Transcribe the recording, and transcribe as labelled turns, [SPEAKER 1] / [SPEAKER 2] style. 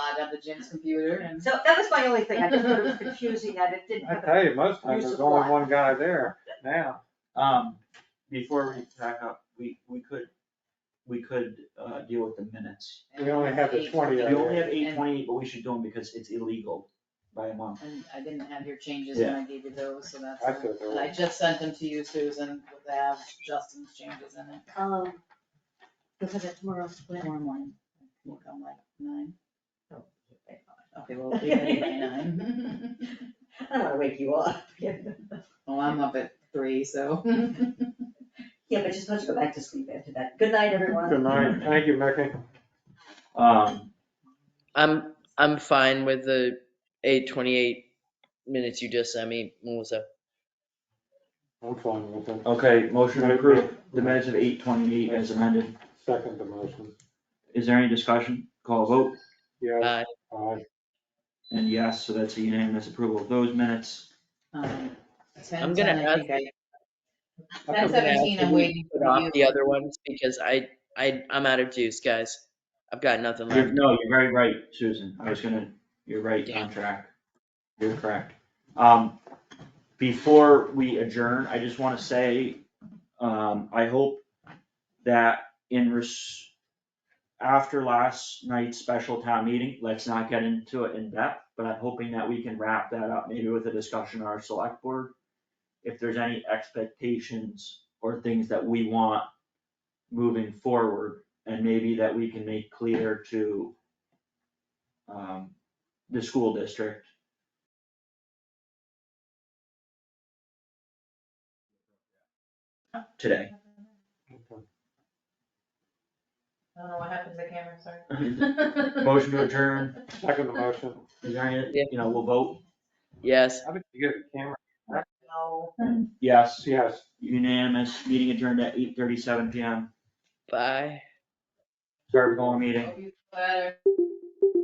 [SPEAKER 1] on the Jim's computer and.
[SPEAKER 2] So that was my only thing, I just thought it was confusing that it didn't
[SPEAKER 3] I
[SPEAKER 2] have a.
[SPEAKER 3] tell you, most times there's only one guy there now.
[SPEAKER 4] Um, before we back up, we, we could, we could, uh, deal with the minutes.
[SPEAKER 3] We only have the 20
[SPEAKER 4] We
[SPEAKER 3] Yeah.
[SPEAKER 4] only have eight twenty-eight, but we should do them because it's illegal by a month.
[SPEAKER 1] And I didn't have your changes when I gave you those, so that's.
[SPEAKER 3] I thought they
[SPEAKER 1] And I
[SPEAKER 3] were,
[SPEAKER 1] just sent them to you, Susan, with the have Justin's changes in it.
[SPEAKER 2] Um, because it's tomorrow, when?
[SPEAKER 1] Tomorrow morning, we'll come like nine. Okay, well, we can do by nine.
[SPEAKER 2] I don't wanna wake you up. Yeah,
[SPEAKER 1] Well, I'm up at three, so.
[SPEAKER 2] Yeah, but just let's go back to sleep after that. Good night, everyone.
[SPEAKER 3] good night, thank you, Mickey.
[SPEAKER 4] Um,
[SPEAKER 5] I'm, I'm fine with the eight twenty-eight minutes you just sent me, Melissa.
[SPEAKER 3] I'm fine with it.
[SPEAKER 4] okay, motion to approve the minutes of eight twenty-eight as amended.
[SPEAKER 3] Second the motion,
[SPEAKER 4] Is there any discussion? Call a vote.
[SPEAKER 3] yes,
[SPEAKER 5] Uh,
[SPEAKER 3] aye,
[SPEAKER 4] And yes, so that's a unanimous approval of those minutes.
[SPEAKER 1] um,
[SPEAKER 5] I'm
[SPEAKER 1] 10,
[SPEAKER 5] gonna
[SPEAKER 1] 10, I
[SPEAKER 5] ask.
[SPEAKER 1] think I-
[SPEAKER 5] I'm
[SPEAKER 1] Ten
[SPEAKER 5] gonna ask
[SPEAKER 1] seventeen,
[SPEAKER 5] if
[SPEAKER 1] I'm
[SPEAKER 5] we
[SPEAKER 1] waiting
[SPEAKER 5] Put
[SPEAKER 1] for you.
[SPEAKER 5] off the other ones because I, I, I'm out of juice, guys. I've got nothing
[SPEAKER 4] You're-
[SPEAKER 5] left.
[SPEAKER 4] No, you're very right, Susan. I was gonna, you're right, on track. You're correct. Um, before we adjourn, I just wanna say, um, I hope that in res- after last night's special town meeting, let's not get into it in depth, but I'm hoping that we can wrap that up maybe with a discussion on our select board. If there's any expectations or things that we want moving forward and maybe that we can make clear to um, the school district. Today.
[SPEAKER 3] okay,
[SPEAKER 1] I don't know what happened to the camera, sorry.
[SPEAKER 4] Motion to adjourn,
[SPEAKER 3] second the motion.
[SPEAKER 4] is there any, you know, we'll vote,
[SPEAKER 5] Yes.
[SPEAKER 3] How did you get a camera?
[SPEAKER 1] No.
[SPEAKER 4] yes,
[SPEAKER 3] Yes.
[SPEAKER 4] unanimous, meeting adjourned at eight thirty-seven PM,
[SPEAKER 5] Bye.
[SPEAKER 4] start going meeting.
[SPEAKER 1] Hope you feel better.